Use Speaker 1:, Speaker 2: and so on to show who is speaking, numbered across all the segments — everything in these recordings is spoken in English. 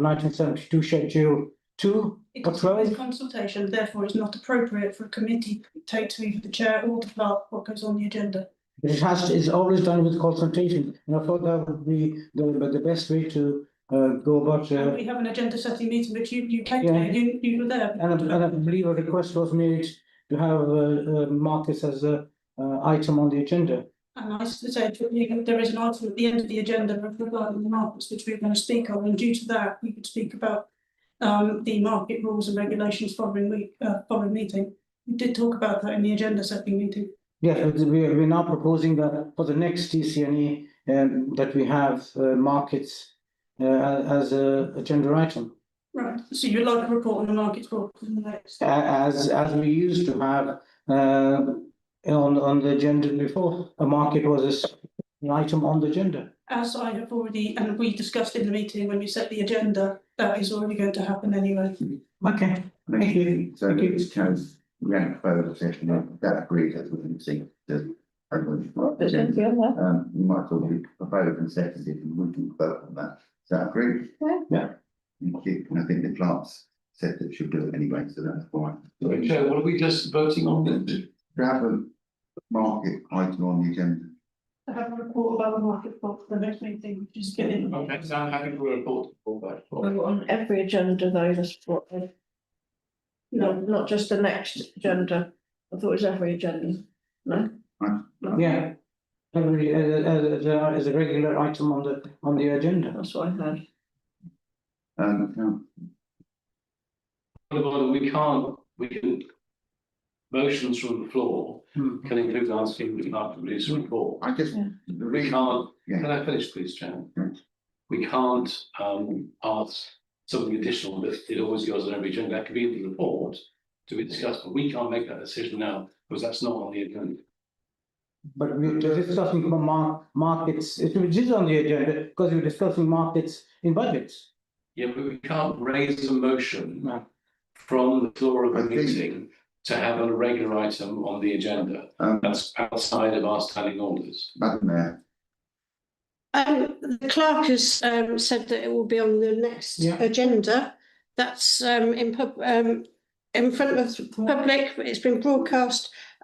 Speaker 1: nineteen seventy-two schedule two.
Speaker 2: It
Speaker 1: What's
Speaker 2: is
Speaker 1: wrong?
Speaker 2: a consultation, therefore it's not appropriate for a committee to take to either the chair or the clerk what goes on the agenda.
Speaker 1: It has, is always done with consultation, and I thought that would be the, the best way to, uh, go about,
Speaker 2: And
Speaker 1: uh,
Speaker 2: we have an agenda setting meeting, but you, you came
Speaker 1: Yeah.
Speaker 2: there, you, you were there.
Speaker 1: and I, and I believe a request was made to have, uh, uh, Marcus as a, uh, item on the agenda.
Speaker 2: And I said, there is an item at the end of the agenda regarding the markets which we're going to speak on, and due to that, we could speak about um, the market rules and regulations following week, uh, following meeting. We did talk about that in the agenda setting meeting.
Speaker 1: Yes, but we are, we're now proposing that for the next TCNE, um, that we have, uh, markets, uh, as a agenda item.
Speaker 2: Right, so you'd like a report on the markets for the next.
Speaker 1: a- as, as we used to have, uh, on, on the agenda before, a market was a s- an item on the agenda.
Speaker 2: As I have already, and we discussed in the meeting when we set the agenda, that is already going to happen anyway.
Speaker 1: Okay, thank you.
Speaker 3: So
Speaker 1: Thank you.
Speaker 3: this comes, we had a further discussion, and that agrees, that's what I'm saying, that. everyone's- Um, you might all be proposed and seconded, and we can vote on that, is that agreed?
Speaker 4: Yeah.
Speaker 3: Yeah. Thank you, and I think the clerks said that she'll do it anyway, so that's fine.
Speaker 5: Okay, what are we just voting on?
Speaker 3: To have a market item on the agenda,
Speaker 2: I have a report about the market for the next meeting, which is getting.
Speaker 5: Okay, so I'm happy for a report. for that.
Speaker 4: On every agenda though, that's what, no, not just the next agenda, I thought it was every agenda, no?
Speaker 3: Right.
Speaker 4: No,
Speaker 1: Yeah. Every, as, as, as a regular item on the, on the agenda.
Speaker 4: That's what I heard,
Speaker 3: um, no,
Speaker 5: Well, We can't, we can. Motions from the floor
Speaker 1: Hmm.
Speaker 5: can include asking the clerk to release a report.
Speaker 3: I just,
Speaker 4: Yeah.
Speaker 3: the
Speaker 5: We
Speaker 3: reason,
Speaker 5: can't, can
Speaker 3: yeah,
Speaker 5: I finish please, Chairman?
Speaker 3: Mm.
Speaker 5: We can't um ask something additional that it always goes on every agenda. That could be in the report to be discussed, but we can't make that decision now because that's not on the agenda.
Speaker 1: But we we're discussing from mar- markets, it was just on the agenda, because we we're discussing markets in budgets.
Speaker 5: Yeah, but we can't raise a motion
Speaker 1: No.
Speaker 5: from the floor of
Speaker 3: I
Speaker 5: a
Speaker 3: think-
Speaker 5: meeting to have a regular item on the agenda.
Speaker 3: um,
Speaker 5: That's outside of our standing orders.
Speaker 3: Madam Mayor,
Speaker 6: Um, the clerk has um said that it will be on the next
Speaker 1: Yeah.
Speaker 6: agenda. That's um in pub, um in front of the public, it's been broadcast.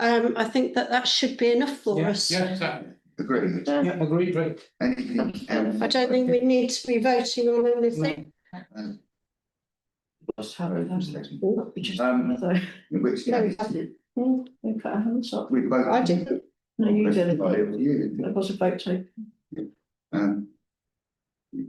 Speaker 6: Um, I think that that should be enough for
Speaker 1: Yeah,
Speaker 6: us.
Speaker 5: Yeah, exactly.
Speaker 3: agree,
Speaker 6: Uh,
Speaker 1: Yeah, agreed, right?
Speaker 3: anything else?
Speaker 6: I don't think we need to be voting on anything.
Speaker 3: Um,
Speaker 4: just have
Speaker 3: sorry,
Speaker 4: it,
Speaker 3: just a second.
Speaker 4: Oh, we just,
Speaker 3: Um,
Speaker 4: though,
Speaker 3: In which
Speaker 6: No, we
Speaker 3: case,
Speaker 6: haven't.
Speaker 4: we put our hands up,
Speaker 3: we both.
Speaker 6: I didn't.
Speaker 4: no, you did
Speaker 3: I'll leave it to
Speaker 4: it,
Speaker 3: you.
Speaker 4: there was a vote taken.
Speaker 3: Um.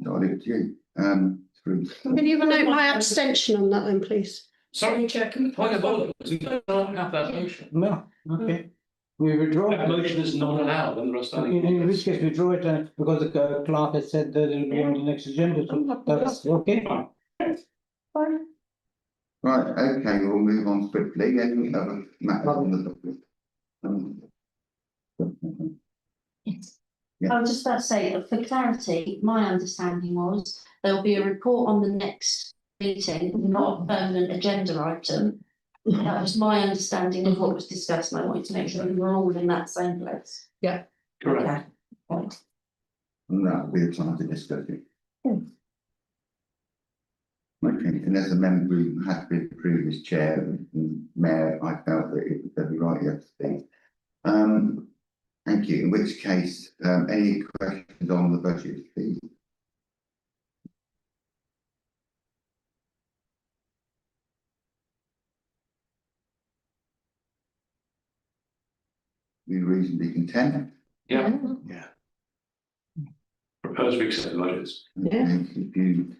Speaker 3: I'll leave it to you, um, through.
Speaker 6: Can you note my abstention on that then, please?
Speaker 5: Sorry,
Speaker 2: Chair, can-
Speaker 5: point of order, we don't have that motion.
Speaker 1: No, okay. We withdraw.
Speaker 5: That
Speaker 1: it.
Speaker 5: motion is not allowed under
Speaker 1: In, in
Speaker 5: our standing
Speaker 1: which
Speaker 5: orders.
Speaker 1: case we draw it, uh, because the uh, clerk has said that it'll be on the next agenda, so that's okay.
Speaker 4: Fine.
Speaker 3: Right, okay, we'll move on swiftly, then we have a matter on the. Um, Yeah.
Speaker 7: I was just about to say, for clarity, my understanding was there'll be a report on the next meeting, not a permanent agenda item. That was my understanding of what was discussed, and I wanted to make sure we were all in that same place.
Speaker 5: Correct.
Speaker 7: Right.
Speaker 3: And that'll be the time to discuss it.
Speaker 4: Yeah.
Speaker 3: Okay, and as a member who had been previous chair and mayor, I felt that it would be right, yes, please. Um, thank you, in which case, um, any questions on the budget, please? We reasonably content?
Speaker 5: Yeah, propose we accept the budgets.
Speaker 4: Yeah.
Speaker 3: And If you,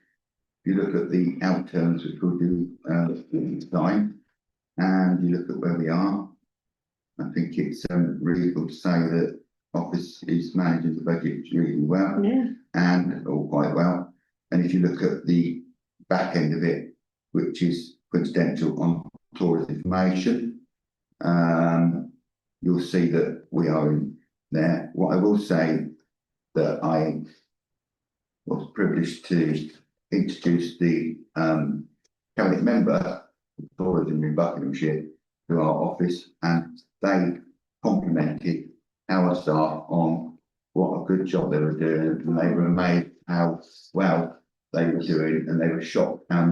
Speaker 3: if you look at the outturns, which we'll do, uh, time, and you look at where we are. I think it's, um, really good to say that office is managing the budget really well
Speaker 4: Yeah,
Speaker 3: and all quite well. And if you look at the back end of it, which is coincidental on tourist information, um, you'll see that we are in there. What I will say that I was privileged to introduce the um cabinet member of tourism in Buckinghamshire to our office, and they complimented our staff on what a good job they were doing, and they were amazed how well they were doing, and they were shocked how